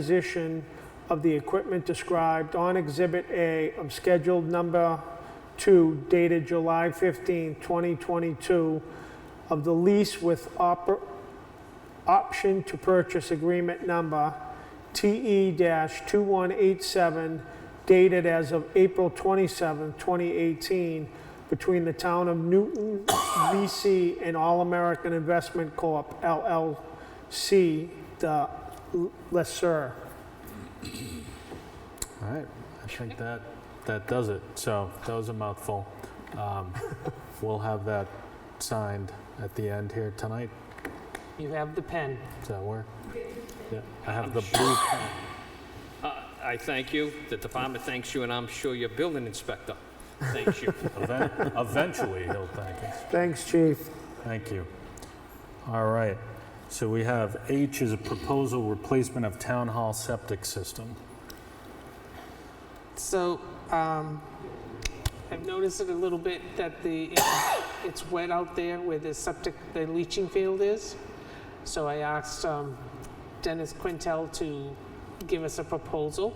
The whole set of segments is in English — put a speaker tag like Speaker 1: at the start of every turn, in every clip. Speaker 1: acquisition of the equipment described on Exhibit A of Scheduled Number 2 dated July 15, 2022, of the lease with oper- option to purchase agreement number E TE-2187 dated as of April 27, 2018, between the town of Newton, VC, and All American Investment Corp., LLC, the lessor.
Speaker 2: All right, I think that, that does it. So that was a mouthful. Um, We'll have that signed at the end here tonight.
Speaker 3: You have the pen.
Speaker 2: Does that work? Yeah, I have the blue pen.
Speaker 4: Uh, I thank you, the department thanks you, and I'm sure your building inspector thanks you.
Speaker 2: Even- Eventually, he'll thank us.
Speaker 1: Thanks, chief.
Speaker 2: Thank you. All right, so we have H is a proposal replacement of town hall septic system.
Speaker 3: So um, I've noticed it a little bit that the, it's wet out there where the septic, the leaching field is. So I asked um, Dennis Quintel to give us a proposal.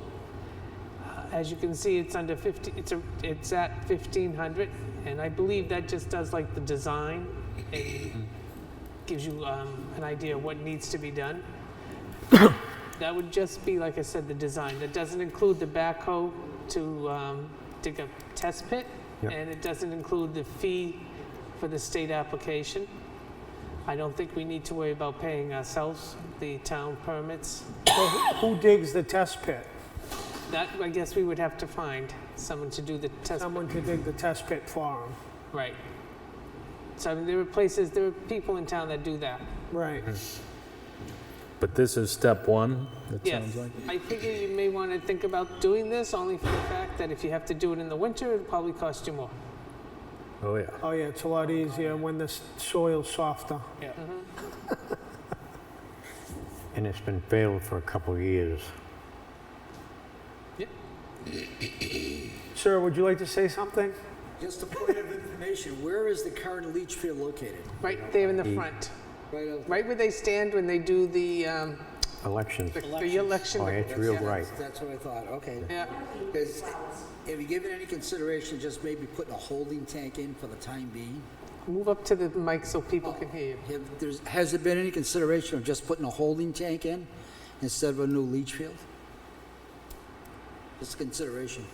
Speaker 3: Uh, As you can see, it's under 50, it's, a- it's at 1,500, and I believe that just does like the design and gives you um, an idea of what needs to be done. That would just be, like I said, the design. That doesn't include the backhoe to um, dig a test pit,
Speaker 2: Yep.
Speaker 3: and it doesn't include the fee for the state application. I don't think we need to worry about paying ourselves the town permits.
Speaker 1: So Who who digs the test pit?
Speaker 3: That, I guess we would have to find someone to do the test,
Speaker 1: Someone could dig the test pit for
Speaker 3: right. So I mean, there are places, there are people in town that do that.
Speaker 1: him. Right.
Speaker 5: Mm-hmm.
Speaker 2: But this is step one, it
Speaker 3: Yes.
Speaker 2: sounds like?
Speaker 3: I figure you may want to think about doing this only for the fact that if you have to do it in the winter, it'll probably cost you more.
Speaker 2: Oh, yeah.
Speaker 1: Oh, yeah, it's a lot easier when the s- soil's softer.
Speaker 5: And it's been failed for a couple of years.
Speaker 1: Sir, would you like to say something?
Speaker 6: Just a point of information, where is the current leach field located?
Speaker 3: Right there in the
Speaker 5: Mm.
Speaker 3: front,
Speaker 6: Right out-
Speaker 3: right where they stand when they do the, um,
Speaker 5: Elections.
Speaker 3: the- the election.
Speaker 5: Oh, it's real
Speaker 6: Yeah,
Speaker 5: bright.
Speaker 6: that's- That's what I thought, okay.
Speaker 3: Yeah,
Speaker 6: Is, have you given any consideration just maybe putting a holding tank in for the time being?
Speaker 3: move up to the mic so people can hear you.
Speaker 6: Have, there's, has there been any consideration of just putting a holding tank in instead of a new leach field? Just a consideration.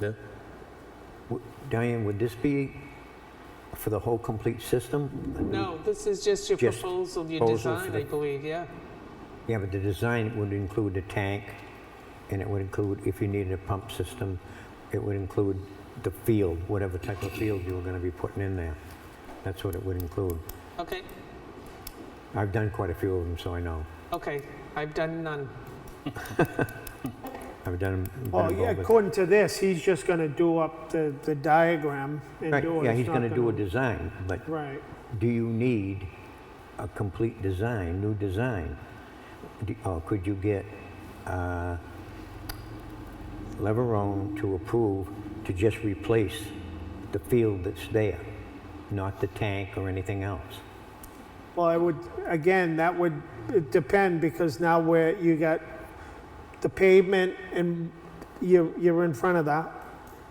Speaker 2: Yeah.
Speaker 5: W- Diane, would this be for the whole complete system?
Speaker 3: No, this is just your
Speaker 5: Just
Speaker 3: proposal, your
Speaker 5: proposal for
Speaker 3: design,
Speaker 5: the-
Speaker 3: I believe, yeah.
Speaker 5: Yeah, but the design would include the tank, and it would include, if you needed a pump system, it would include the field, whatever type of field you were going to be putting in there. That's what it would include.
Speaker 3: Okay,
Speaker 5: I've done quite a few of them, so I know.
Speaker 3: okay, I've done none.
Speaker 5: I've done them.
Speaker 1: Well, Oh, yeah, according to this, he's just gonna do up the, the diagram and do it.
Speaker 5: Yeah,
Speaker 1: It's
Speaker 5: he's
Speaker 1: not
Speaker 5: going to do a design, but
Speaker 1: Right.
Speaker 5: do you need a complete design, new design? Do- Or could you get uh, Leverone to approve to just replace the field that's there, not the tank or anything else?
Speaker 1: Well, I would, again, that would depend, because now where you got the pavement and you, you're in front of that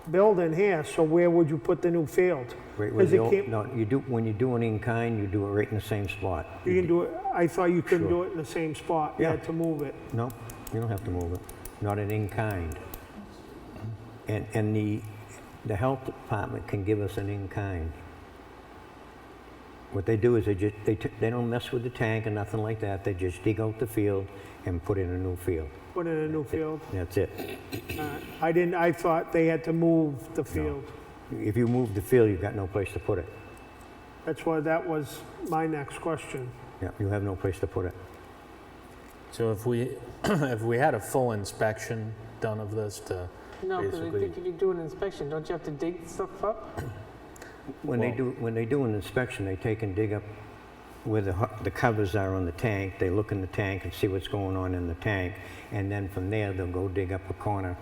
Speaker 1: building here, so where would you put the new field?
Speaker 5: Right where
Speaker 1: 'Cause
Speaker 5: the
Speaker 1: it
Speaker 5: old-
Speaker 1: can't-
Speaker 5: No, you do, when you do it in kind, you do it right in the same spot.
Speaker 1: You can do it, I thought you couldn't do
Speaker 5: Sure.
Speaker 1: it in the same spot, you
Speaker 5: Yeah.
Speaker 1: had to move it.
Speaker 5: No, you don't have to move it, not an in-kind. And, and the, the health department can give us an in-kind. What they do is they just, they, t- they don't mess with the tank or nothing like that, they just dig out the field and put in a new field.
Speaker 1: Put in a new field.
Speaker 5: That's it.
Speaker 1: Uh, I didn't, I thought they had to move the field.
Speaker 5: If you move the field, you've got no place to put it.
Speaker 1: That's why that was my next question.
Speaker 5: Yeah, you have no place to put it.
Speaker 2: So if we, if we had a full inspection done of this to
Speaker 3: No, because I
Speaker 2: Basically-
Speaker 3: think if you do an inspection, don't you have to dig stuff up?
Speaker 5: When they
Speaker 2: Well-
Speaker 5: do, when they do an inspection, they take and dig up where the, ho- the covers are on the tank, they look in the tank and see what's going on in the tank, and then from there, they'll go dig up a corner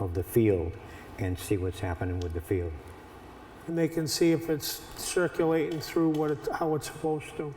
Speaker 5: of the field and see what's happening with the field.
Speaker 1: and they can see if it's circulating through what, it- how it's supposed to.